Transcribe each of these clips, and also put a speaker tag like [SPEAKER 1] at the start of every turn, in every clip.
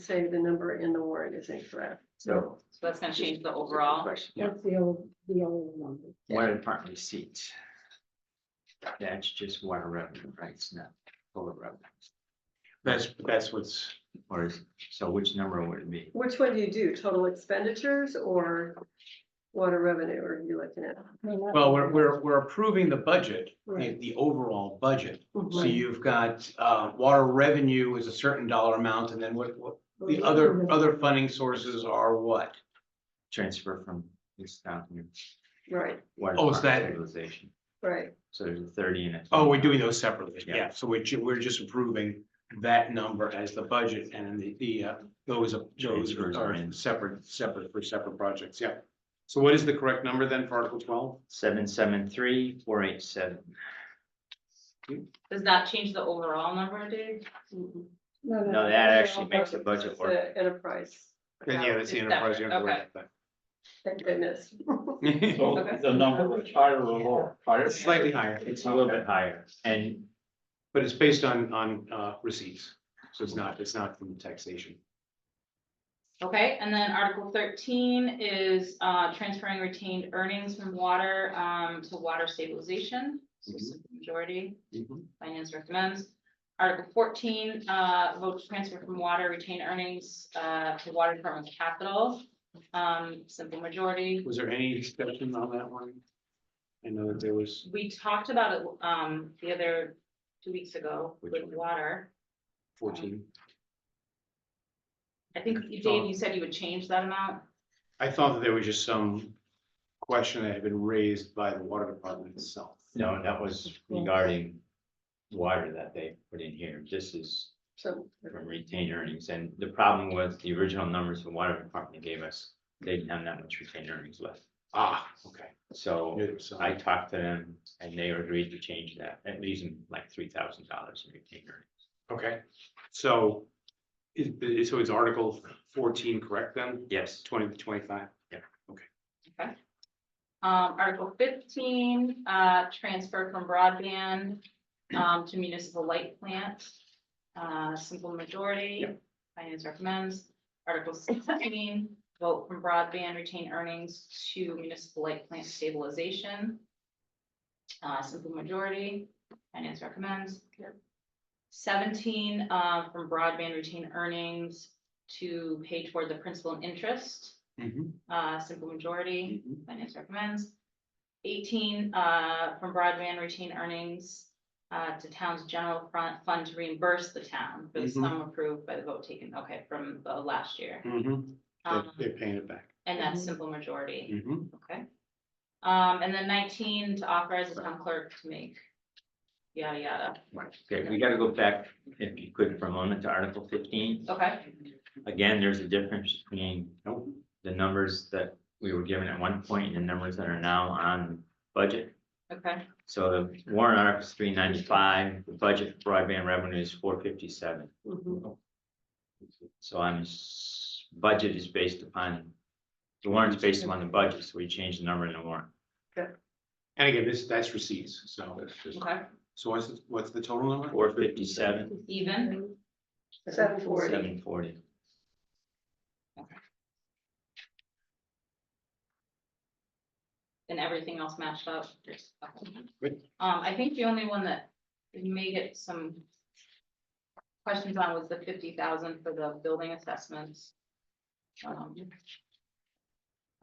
[SPEAKER 1] say the number in the warrant is incorrect.
[SPEAKER 2] So
[SPEAKER 3] So that's gonna change the
[SPEAKER 2] Good
[SPEAKER 3] overall.
[SPEAKER 2] question. Yeah,
[SPEAKER 1] the old, the old number.
[SPEAKER 2] water department receipts. That's just water revenue, right? It's not total revenue.
[SPEAKER 4] That's, that's what's,
[SPEAKER 2] Or is, so which number would it be?
[SPEAKER 1] Which one do you do? Total expenditures or water revenue are you looking at?
[SPEAKER 4] well, we're, we're, we're approving the budget, the,
[SPEAKER 1] Right.
[SPEAKER 4] the overall budget. So
[SPEAKER 1] Right.
[SPEAKER 4] you've got, uh, water revenue is a certain dollar amount and then what, what, the other, other funding sources are what?
[SPEAKER 2] Transfer from this down here.
[SPEAKER 1] Right,
[SPEAKER 2] water
[SPEAKER 4] Oh, is
[SPEAKER 2] department
[SPEAKER 4] that-
[SPEAKER 2] stabilization.
[SPEAKER 1] right.
[SPEAKER 2] So there's a thirty in it.
[SPEAKER 4] Oh, we're doing those separately.
[SPEAKER 2] Yeah.
[SPEAKER 4] Yeah, so we're, ju- we're just approving that number as the budget and the, the, uh, those, are- those
[SPEAKER 2] Transfers are in.
[SPEAKER 4] are separate, separate for separate projects. Yeah. So what is the correct number then for Article twelve?
[SPEAKER 2] Seven, seven, three, four, eight, seven.
[SPEAKER 3] Does that change the overall number, Dave?
[SPEAKER 1] Mhm.
[SPEAKER 2] No, that actually makes the budget
[SPEAKER 1] It's
[SPEAKER 2] work.
[SPEAKER 1] the Enterprise.
[SPEAKER 4] Then yeah, that's the
[SPEAKER 3] It's
[SPEAKER 4] enterprise.
[SPEAKER 3] separate,
[SPEAKER 4] you don't have to
[SPEAKER 1] Thank goodness.
[SPEAKER 4] worry about
[SPEAKER 2] Oh,
[SPEAKER 4] that.
[SPEAKER 5] So the number is higher or lower? Higher?
[SPEAKER 4] It's Slightly higher.
[SPEAKER 2] It's a little bit higher and
[SPEAKER 4] But it's based on, on, uh, receipts, so it's not, it's not from taxation.
[SPEAKER 3] Okay, and then Article thirteen is uh transferring retained earnings from water um to water stabilization. So simple majority, finance recommends. Article fourteen, uh vote to transfer from water retained earnings uh to water department capital. Um, simple majority.
[SPEAKER 4] Was there any discussion on that one? I know that there was,
[SPEAKER 3] We talked about it um the other two weeks ago
[SPEAKER 2] Which
[SPEAKER 3] with
[SPEAKER 2] one?
[SPEAKER 3] water.
[SPEAKER 4] 14.
[SPEAKER 3] I think,
[SPEAKER 2] Oh.
[SPEAKER 3] Dave, you said you would change that amount.
[SPEAKER 4] I thought that there was just some question that had been raised by the water department itself.
[SPEAKER 2] no, that was regarding water that they put in here. This is
[SPEAKER 1] So,
[SPEAKER 2] from retained earnings, and the problem was the original numbers the water department gave us, they didn't have that much retained earnings left.
[SPEAKER 4] Ah, okay.
[SPEAKER 2] So
[SPEAKER 4] Knew there was some.
[SPEAKER 2] I talked to them and they agreed to change that, at least in like three thousand dollars in retained earnings.
[SPEAKER 4] Okay, so is, is- so it's Article fourteen correct then?
[SPEAKER 2] Yes,
[SPEAKER 4] Twenty to twenty-five?
[SPEAKER 3] Um, Article fifteen, uh, transfer from broadband, um, to municipal light plant. Uh, simple majority, finance recommends. Article sixteen, vote from broadband retain earnings to municipal light plant stabilization. Uh, simple majority, finance recommends. Seventeen, uh, from broadband retain earnings to pay toward the principal and interest, uh, simple majority.
[SPEAKER 4] Mhm.
[SPEAKER 3] Finance recommends. Eighteen, uh, from broadband retained earnings, uh, to town's general front fund to reimburse the town for the
[SPEAKER 4] Mhm.
[SPEAKER 3] sum approved by the vote taken, okay, from the last year.
[SPEAKER 4] Mhm.
[SPEAKER 3] Um,
[SPEAKER 4] They- They're paying it back.
[SPEAKER 3] and
[SPEAKER 1] Mhm.
[SPEAKER 3] that's simple majority,
[SPEAKER 4] Mhm.
[SPEAKER 3] okay? Um, and then nineteen to authorize the town clerk to make yada yada,
[SPEAKER 2] okay, we gotta go back, if you could, for a moment to Article fifteen.
[SPEAKER 3] okay?
[SPEAKER 2] Again, there's a difference between
[SPEAKER 4] Nope.
[SPEAKER 2] the numbers that we were given at one point and the numbers that are now on budget.
[SPEAKER 3] Okay,
[SPEAKER 2] So the warrant article is three ninety-five, the budget for broadband revenue is four fifty-seven.
[SPEAKER 1] mhm.
[SPEAKER 2] So I'm, s- budget is based upon, the warrant's based upon the budget, so we change the number in the warrant.
[SPEAKER 4] And again, this, that's receipts, so,
[SPEAKER 3] okay,
[SPEAKER 4] so what's, the- what's the total number?
[SPEAKER 2] Four fifty-seven,
[SPEAKER 3] even,
[SPEAKER 1] Seven forty.
[SPEAKER 2] seven forty.
[SPEAKER 3] and everything else matched up. Okay.
[SPEAKER 4] Good.
[SPEAKER 3] Um, I think the only one that may get some questions on was the fifty thousand for the building assessments. Um,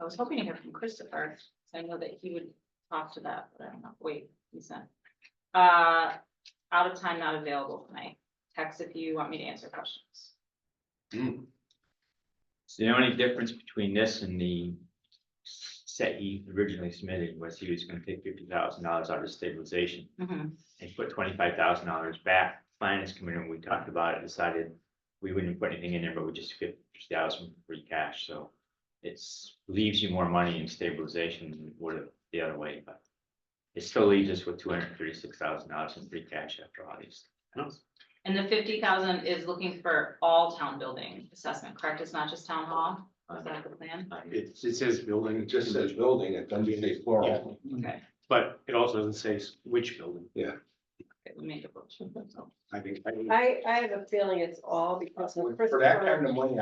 [SPEAKER 3] I was hoping to hear from Christopher, 'cause I know that he would talk to that, but I don't know, wait, he's not. Uh, out of time, not available tonight, text if you want me to answer questions.
[SPEAKER 4] Mm.
[SPEAKER 2] So the only difference between this and the set he originally submitted was he was gonna take fifty thousand dollars out of stabilization. and put twenty-five thousand dollars back. Finance committee, when we talked about it, decided we wouldn't put anything in there, but we just fifty thousand free cash, so. It's leaves you more money in stabilization than it would have the other way, but. It still leaves us with two hundred and thirty-six thousand dollars in free cash after all these.
[SPEAKER 3] And the fifty thousand is looking for all town building assessment, correct? It's not just town hall, is that the plan?
[SPEAKER 4] It, it says building.
[SPEAKER 5] It just says building, it doesn't say plural.
[SPEAKER 3] Okay.
[SPEAKER 4] But it also doesn't say s- which building.
[SPEAKER 3] Okay, we made a motion, so.
[SPEAKER 4] I think. I think
[SPEAKER 1] I, I have a feeling it's all because. of
[SPEAKER 4] For that kind of money,